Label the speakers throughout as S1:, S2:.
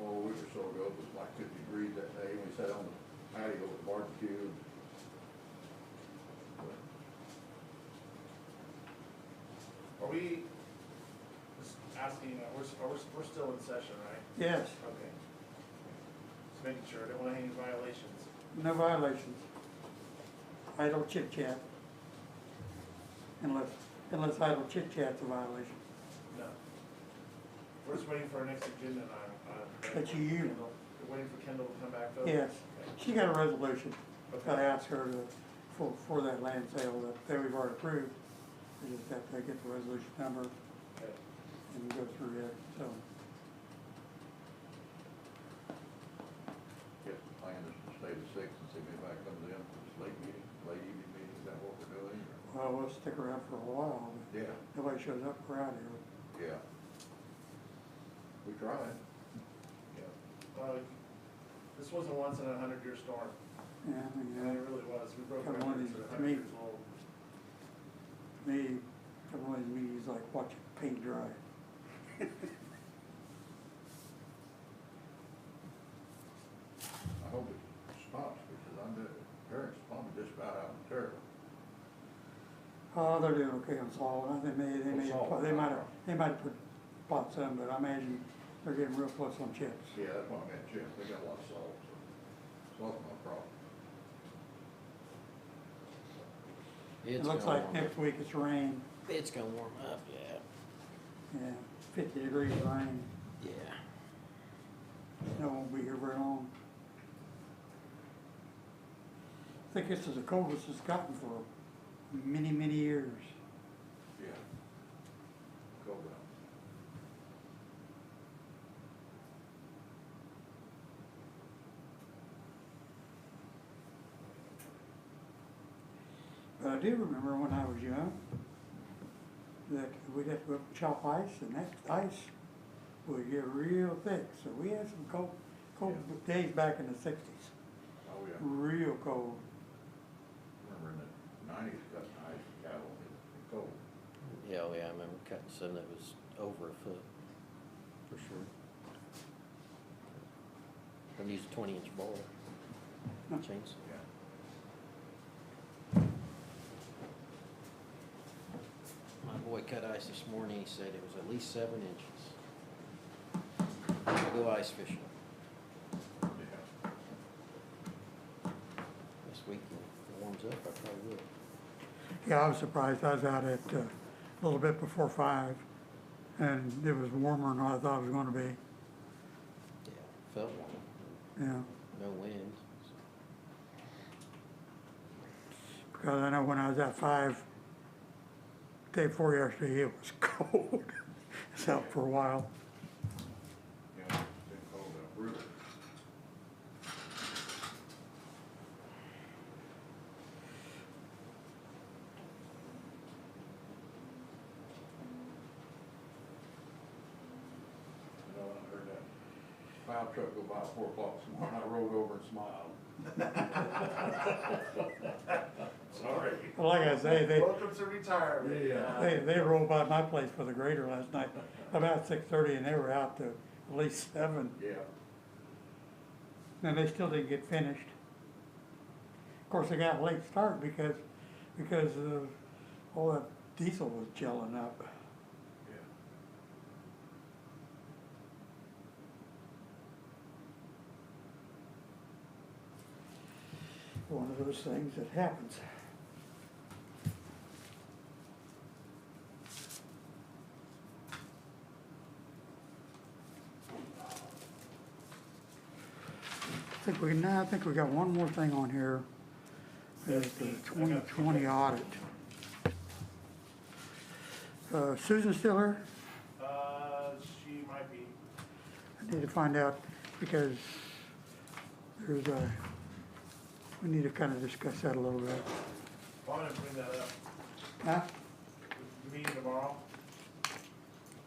S1: or so ago, it was like fifty degrees that day, and we sat on the patio with barbecue.
S2: Are we, just asking, uh, we're, s- are we, s- we're still in session, right?
S3: Yes,
S2: Okay. Just making sure, I don't want any violations.
S3: no violations. Idle chit chat. Unless, unless idle chit chat's a violation.
S2: No. We're just waiting for our next agenda and I.
S3: But you- you-
S2: We're waiting for Kendall to come back though?
S3: Yes,
S2: Okay.
S3: she got a resolution. I
S2: uh, Okay.
S3: asked her to, for, for that land sale that, that we've already approved. We just have to get the resolution number
S2: Okay.
S3: and go through it, so.
S1: Yes, the plan is to stay to six and see if anybody comes in for this late meeting, late evening meeting, is that what we're doing? or-
S3: Well, we'll stick around for a while. but
S1: Yeah,
S3: if Nobody shows up, we're out of here.
S1: yeah. We tried.
S2: Yeah. Uh, This wasn't once in a hundred year storm,
S3: Yeah, I mean,
S2: and
S3: uh,
S2: it really was, we broke
S3: Come on,
S2: records
S3: to
S2: at a hundred
S3: me.
S2: years old.
S3: me, everyone of these meetings like watching paint dry.
S1: I hope it stops, because I'm, the parents probably just about out of terrible.
S3: Oh, they're doing okay on salt, I think they, they
S1: On
S3: may,
S1: salt,
S3: they
S1: not
S3: might have,
S1: rock.
S3: they might have put, bought some, but I imagine they're getting real close on chips.
S1: Yeah, that's what I meant, Jim, they got a lot of salt, so it's not my problem.
S3: It
S4: It's
S3: looks
S4: gonna
S3: like
S4: warm
S3: next week it's rain,
S4: up. It's gonna warm up, yeah,
S3: yeah, fifty degrees rain,
S4: yeah.
S3: snow won't be here very long. I think this is the coldest it's gotten for many, many years.
S1: Yeah. Go down.
S3: But I do remember when I was young, that we'd have to go up and chop ice, and that ice would get real thick, so we had some cold, cold days back in the sixties,
S1: Oh, yeah,
S3: real cold.
S1: remember in the nineties, got nice cattle, it was cold.
S4: Yeah, oh yeah, I remember cutting some that was over a foot, for sure. I used a twenty inch bowl, chainsaw.
S1: Yeah.
S4: My boy cut ice this morning, he said it was at least seven inches. I'll Go ice fishing
S1: Yeah.
S4: this weekend, if it warms up, I probably will.
S3: Yeah, I was surprised, I was out at, uh, a little bit before five, and it was warmer than I thought it was gonna be,
S4: Yeah, felt warm,
S3: yeah.
S4: no wind, so.
S3: Because I know when I was at five, day before yesterday, it was cold, it's out for a while.
S1: Yeah, it's been cold out, brutal. You know, I heard that fire truck go by at four o'clock this morning, I rolled over and smiled.
S2: Sorry.
S3: Well, Like I say, they,
S2: Welcome to retirement.
S1: Yeah.
S3: They, they rolled by my place with a grader last night, about six thirty, and they were out to at least seven,
S1: Yeah.
S3: and they still didn't get finished. Of course, they got a late start because, because uh, all that diesel was gelling up.
S1: Yeah.
S3: One of those things that happens. I think we, now, I think we got one more thing on here. Is the twenty twenty audit. Uh, Susan still here?
S2: Uh, she might be.
S3: I need to find out because there's a, we need to kind of discuss that a little bit.
S2: Well, I'm gonna bring that up.
S3: Huh?
S2: The Meeting tomorrow?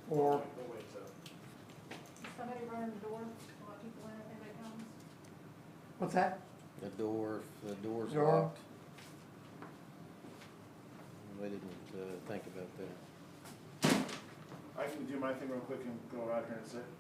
S3: Or,
S2: We'll wait till.
S5: Somebody running the door, a lot of people in, if anybody comes.
S3: what's that?
S4: The door, the door's
S3: Door?
S4: locked. They didn't, uh, think about that.
S2: I can do my thing real quick and go out here and sit.